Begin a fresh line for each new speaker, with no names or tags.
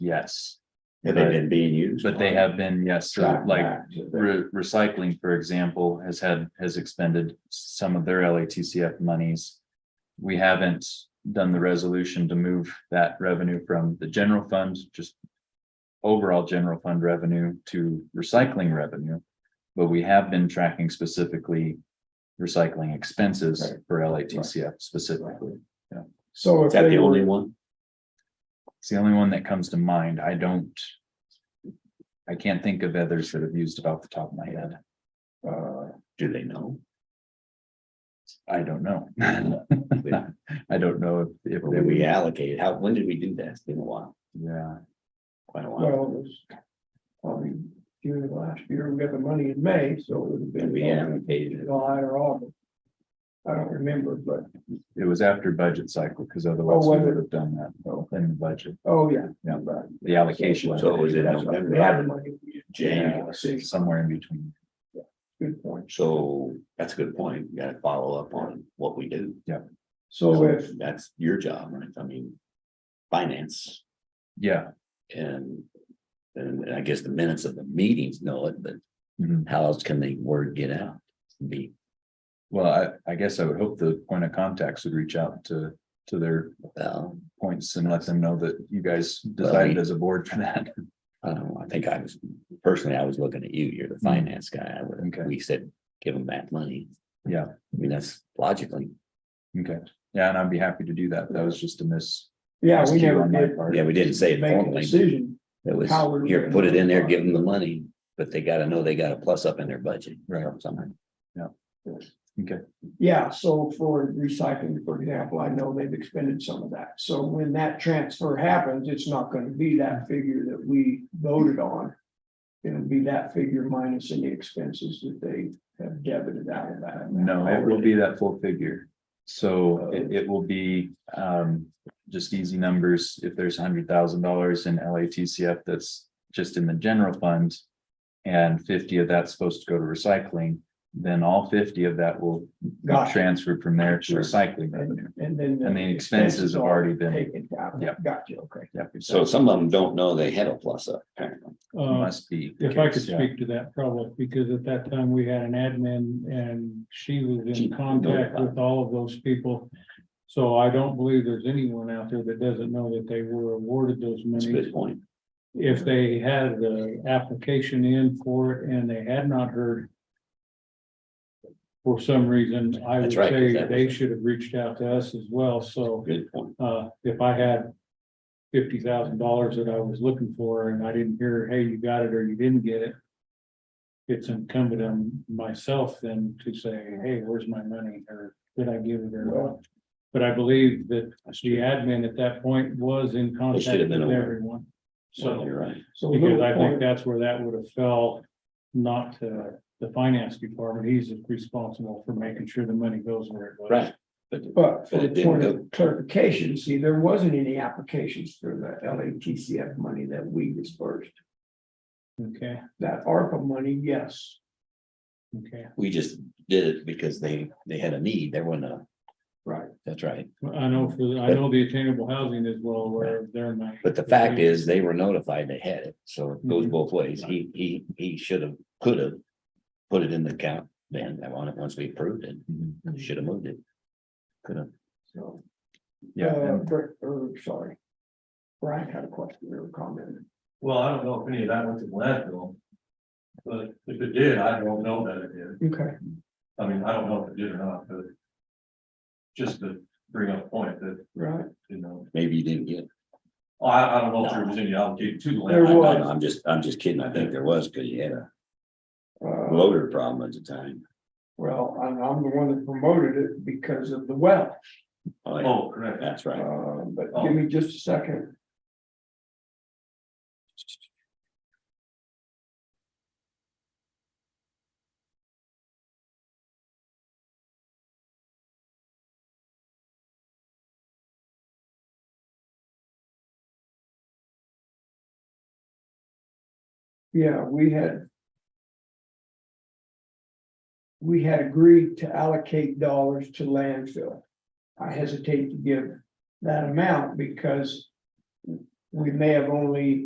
yes,
Have they been being used?
but they have been, yes, so
Gotten
like
back to the-
re- recycling, for example, has had, has expended some of their LATCF monies. We haven't done the resolution to move that revenue from the general fund, just overall general fund revenue to recycling revenue. But we have been tracking specifically recycling expenses for LATCF specifically.
So if
Is that
they
the only
were,
one?
It's the only one that comes to mind. I don't. I can't think of others that have used it off the top of my head.
Uh, do they know?
I don't know. I don't know if, if
Or
they
did
would,
we allocate? How, when did we do that? It's been a while,
yeah,
quite a while.
well, it was probably June of last year, we got the money in May, so it would have
And
been.
we allocated it.
July or August. I don't remember, but,
it was after budget cycle, because otherwise
Oh,
we
was
would have done that though, in the budget,
oh, yeah.
yeah, the allocation.
So was it
That's right. We had the money.
January?
Somewhere in between,
Good point.
So that's a good point. You gotta follow up on what we do.
So if,
That's your job, right? I mean. Finance
yeah,
and. And I guess the minutes of the meetings know it, but
mhm.
how else can the word get out? Be,
well, I, I guess I would hope the point of contacts would reach out to, to their
well,
points and let them know that you guys
Well, I
decided
mean-
as a board for that,
I don't know. I think I was, personally, I was looking at you. You're the finance guy. I
Okay.
would, we said, give them back money.
Yeah.
I mean, that's logically.
okay, yeah, and I'd be happy to do that, that was just a miss.
yeah, we
miscue
never
on my
did
part.
Yeah, we didn't say it
make a
formally.
decision.
It was,
How we're
here,
gonna
put it in there,
modify.
give them the money, but they gotta know they got a plus up in their budget.
Right.
or Something.
Yeah, so for recycling, for example, I know they've expended some of that. So when that transfer happens, it's not gonna be that figure that we voted on. It'll be that figure minus any expenses that they have debited out of that.
No, it will be that full figure. So it, it will be, um, just easy numbers. If there's hundred thousand dollars in LATCF that's just in the general fund. And fifty of that's supposed to go to recycling, then all fifty of that will
Gotcha.
transfer from there to
Sure.
recycling revenue.
And then.
And the expenses have already been-
Taken down.
Yeah.
Gotcha, okay.
Yeah,
Uh,
So some of them don't know they had a plus up, apparently.
Uh,
Must be. the
if I could
case, yeah.
speak to that probably, because at that time we had an admin and she was
She
in
knows
contact
about it.
with all of those people. So I don't believe there's anyone out there that doesn't know that they were awarded those
That's a
monies.
good point.
If they had the application in for it and they had not heard. For some reason, I would
That's right, 'cause
say
that was-
they should have reached out to us as well, so.
Good point.
Uh, if I had fifty thousand dollars that I was looking for and I didn't hear, hey, you got it or you didn't get it. It's incumbent on myself then to say, hey, where's my money or did I give it or not? But I believe that the admin at that point was in
should
contact
have
with
been aware.
everyone.
So
So,
you're right.
So
because
little
I think
point,
that's where that would have fell, not to the finance department. He's responsible for making sure the money goes where it was.
Right.
but
But
for
it
the
didn't
point
go-
of clarification, see, there wasn't any applications for the LATCF money that we dispersed.
Okay,
That ARPA money, yes,
okay.
We just did it because they, they had a need. There wasn't a,
right.
that's right.
Well, I know, for the- I know the attainable housing is well aware of their money.
But the fact is, they were notified they had it, so it goes
Mhm.
both ways. He, he, he should have, could have. Put it in the account then, that one, once we approved it,
Mhm.
should have moved it. Could have.
So,
Yeah,
uh,
and
Br- er, sorry. Brian had a question or a comment.
Well, I don't know if any of that went to landfill. But if it did, I don't know that it did.
Okay,
I mean, I don't know if it did or not, but. Just to bring up a point that,
right.
you know,
Maybe you didn't get.
I, I don't know if there was any allocated to the
There
landfill.
I'm
was.
I'm just, I'm just kidding. I think there was, because you had a
Uh,
loader problem at the time.
well, I'm, I'm the one that promoted it because of the well,
Oh, yeah,
Oh, correct.
that's right.
uh, but give me just a second. Yeah, we had. We had agreed to allocate dollars to landfill. I hesitate to give that amount because. we may have only